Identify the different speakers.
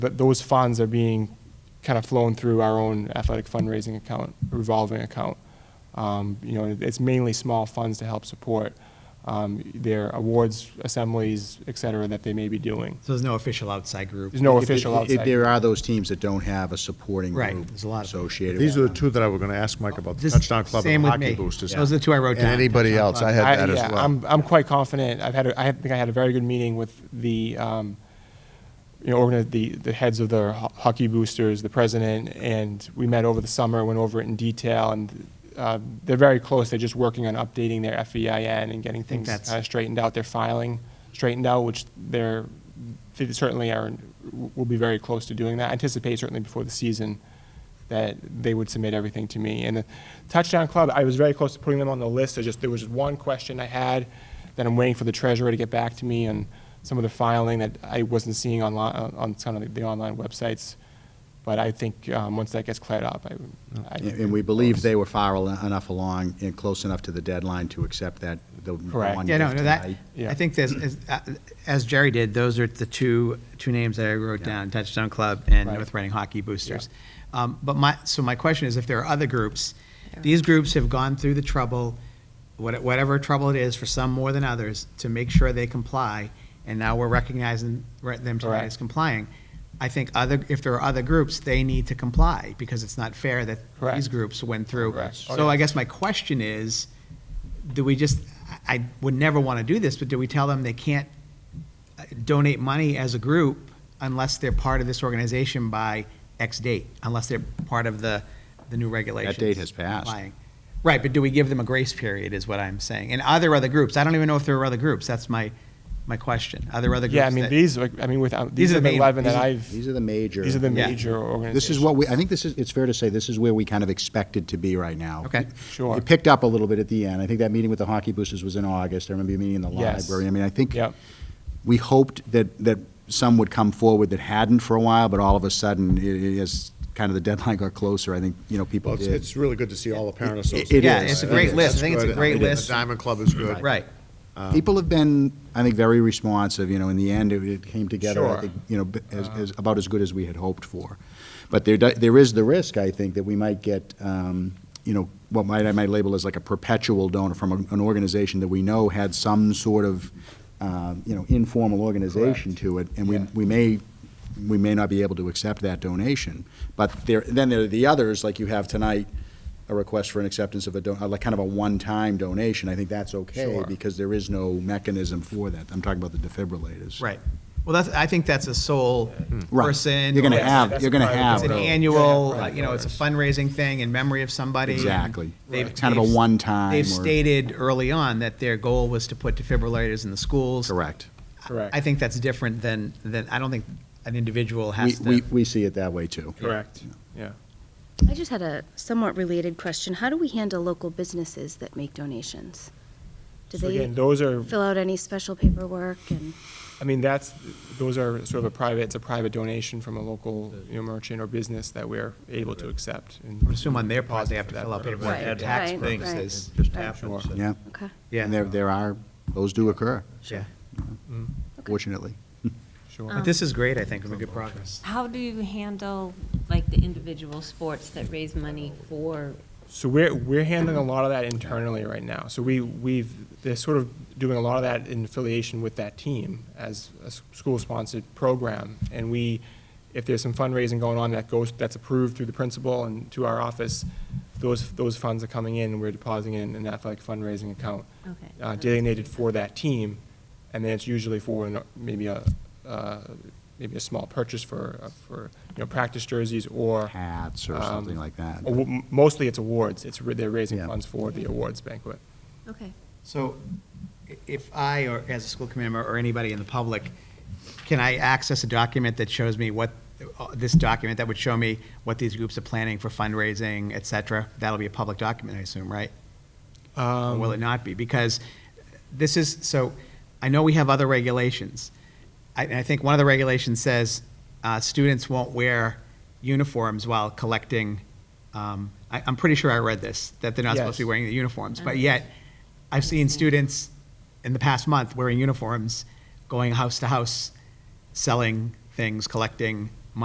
Speaker 1: But those funds are being kind of flown through our own athletic fundraising account, revolving account. Um, you know, it's mainly small funds to help support um, their awards assemblies, et cetera, that they may be doing.
Speaker 2: So there's no official outside group?
Speaker 1: There's no official
Speaker 3: If- if-
Speaker 1: outside.
Speaker 3: There are those teams that don't have a supporting
Speaker 2: Right,
Speaker 3: group
Speaker 2: there's a lot of-
Speaker 3: associated with
Speaker 4: These are the
Speaker 3: them.
Speaker 4: two that I were going to ask Mike about, the
Speaker 2: This-
Speaker 4: Touchdown Club
Speaker 2: same
Speaker 4: and the
Speaker 2: with
Speaker 4: Hockey
Speaker 2: me.
Speaker 4: Boosters.
Speaker 2: Those are the two I wrote
Speaker 4: And
Speaker 2: down.
Speaker 4: anybody
Speaker 2: Touchdown
Speaker 4: else,
Speaker 2: Club.
Speaker 4: I had that
Speaker 1: I-
Speaker 4: as
Speaker 1: yeah,
Speaker 4: well.
Speaker 1: I'm, I'm quite confident. I've had, a, I think I had a very good meeting with the, um, you know, organi- the, the heads of the ho- hockey boosters, the president, and we met over the summer, went over it in detail, and uh, they're very close. They're just working on updating their FEIN and getting things uh,
Speaker 2: that's-
Speaker 1: kind of straightened out, their filing straightened out, which they're, they certainly are, will be very close to doing that. I anticipate certainly before the season that they would submit everything to me. And the Touchdown Club, I was very close to putting them on the list. I just, there was just one question I had that I'm waiting for the treasurer to get back to me on some of the filing that I wasn't seeing online, on some of the- the online websites. But I think um, once that gets cleared up, I would. I-
Speaker 3: And and we believe they were far al- enough along and close enough to the deadline to accept that, the the
Speaker 1: Correct.
Speaker 3: one
Speaker 2: Yeah, no,
Speaker 3: gift
Speaker 2: no, that,
Speaker 3: tonight.
Speaker 1: Yeah.
Speaker 2: I think there's, as- uh, as Jerry did, those are the two, two names that I wrote
Speaker 3: Yeah.
Speaker 2: down, Touchdown Club and
Speaker 1: Right.
Speaker 2: North Reading Hockey Boosters. Um, But my, so my question is, if there are other groups, these groups have gone through the trouble, what- whatever trouble it is, for some more than others, to make sure they comply, and now we're recognizing re- them tonight
Speaker 1: Correct.
Speaker 2: as complying. I think other, if there are other groups, they need to comply, because it's not fair that these
Speaker 1: Correct.
Speaker 2: groups went through.
Speaker 1: Correct.
Speaker 2: So I guess my question is, do we just, I I would never want to do this, but do we tell them they can't uh, donate money as a group unless they're part of this organization by X date, unless they're part of the, the new regulations?
Speaker 3: has passed.
Speaker 2: applying? Right, but do we give them a grace period, is what I'm saying? And are there other groups? I don't even know if there are other groups, that's my, my question. Are there other groups?
Speaker 1: Yeah, I mean,
Speaker 2: that-
Speaker 1: these, like, I mean, without, these
Speaker 2: These are
Speaker 1: are the
Speaker 2: main-
Speaker 1: 11 that
Speaker 2: these are-
Speaker 1: I've,
Speaker 3: These are the major.
Speaker 1: these are the
Speaker 2: Yeah.
Speaker 1: major organizations.
Speaker 3: This is what we, I think this is, it's fair to say, this is where we kind of expected to be right now.
Speaker 2: Okay.
Speaker 1: Sure.
Speaker 3: It picked up a little bit at the end. I think that meeting with the hockey boosters was in August. I remember a meeting in the
Speaker 1: Yes.
Speaker 3: library. I mean, I think
Speaker 1: Yep.
Speaker 3: we hoped that, that some would come forward that hadn't for a while, but all of a sudden, it it is, kind of the deadline got closer, I think, you know, people
Speaker 4: Well, it's,
Speaker 3: did.
Speaker 4: it's really good to see all the parent
Speaker 3: It- it
Speaker 4: associations.
Speaker 3: Yeah, is. it's a
Speaker 2: great
Speaker 4: That's
Speaker 2: list. I think it's a
Speaker 4: good.
Speaker 2: great
Speaker 4: The
Speaker 2: list.
Speaker 4: Diamond Club is good.
Speaker 2: Right,
Speaker 1: Um,
Speaker 3: People have been, I think, very responsive, you know, in the end, it- it came together, I
Speaker 1: Sure. Uh-huh.
Speaker 3: think, you know, b- as, as, about as good as we had hoped for. But there, do- there is the risk, I think, that we might get, um, you know, what might, I might label as like a perpetual donor from a- an organization that we know had some sort of, um, you know, informal organization to it, and we,
Speaker 1: Yeah.
Speaker 3: we may, we may not be able to accept that donation. But there, then there are the others, like you have tonight, a request for an acceptance of a, don- uh, like, kind of a one-time donation, I think that's okay okay,
Speaker 1: Sure.
Speaker 3: because there is no mechanism for that. I'm talking about the defibrillators.
Speaker 2: right. Well, that's, I think that's a sole
Speaker 3: Right.
Speaker 2: person.
Speaker 3: You're gonna
Speaker 2: or it's-
Speaker 3: have, you're gonna have
Speaker 2: It's an
Speaker 3: those.
Speaker 2: annual, uh, you know, it's a fundraising thing in memory of somebody. and
Speaker 3: Exactly.
Speaker 2: they've-
Speaker 3: It's kind of a
Speaker 2: they've-
Speaker 3: one-time
Speaker 2: They've
Speaker 3: or-
Speaker 2: stated early on that their goal was to put defibrillators in the schools.
Speaker 3: Correct.
Speaker 1: Correct.
Speaker 2: I think that's different than, than, I don't think an individual
Speaker 3: We,
Speaker 2: has to.
Speaker 3: we, we see it that way too.
Speaker 1: Correct, yeah.
Speaker 5: I just had a somewhat related question. How do we handle local businesses that make donations? Do
Speaker 1: So
Speaker 5: they
Speaker 1: again, those are.
Speaker 5: fill out any special paperwork and?
Speaker 1: I mean, that's, those are sort of a private, it's a private donation from a local, you know, merchant or business that we're able to accept. and-
Speaker 2: I would assume on their part, they have to fill out
Speaker 1: Deposit for that
Speaker 2: paperwork,
Speaker 5: Right,
Speaker 2: their tax
Speaker 5: right,
Speaker 2: purposes.
Speaker 5: right.
Speaker 6: Just happens.
Speaker 1: Sure.
Speaker 3: Yeah.
Speaker 5: Okay.
Speaker 2: Yeah.
Speaker 3: And there, there are, those do occur,
Speaker 2: Yeah.
Speaker 3: fortunately.
Speaker 1: Mm-hmm. Sure.
Speaker 2: But this is great, I think, and good progress.
Speaker 7: How do you handle, like, the individual sports that raise money for,
Speaker 1: So we're, we're handling a lot of that internally right now. So we, we've, they're sort of doing a lot of that in affiliation with that team as a s- school-sponsored program. And we, if there's some fundraising going on that goes, that's approved through the principal and to our office, those, those funds are coming in, and we're depositing it in an athletic fundraising account.
Speaker 7: Okay.
Speaker 1: uh, Designated for that team, and then it's usually for an- maybe a, uh, maybe a small purchase for, uh, for, you know, practice jerseys or.
Speaker 3: Hats or
Speaker 1: um,
Speaker 3: something like that.
Speaker 1: awa- m- Mostly it's awards, it's, ra- they're raising
Speaker 3: Yeah.
Speaker 1: funds for the awards banquet.
Speaker 7: okay.
Speaker 2: So i- if I, or as a school committee member, or anybody in the public, can I access a document that shows me what, uh, this document that would show me what these groups are planning for fundraising, et cetera? That'll be a public document, I assume, right? Or will it not be? Because this is, so, I know we have other regulations. I, and I think one of the regulations says, uh, students won't wear uniforms while collecting, um, I, I'm pretty sure I read this, that they're not supposed to be
Speaker 1: Yes.
Speaker 2: wearing the uniforms. But yet, I've seen students in the past month wearing uniforms, going house to house, selling things, collecting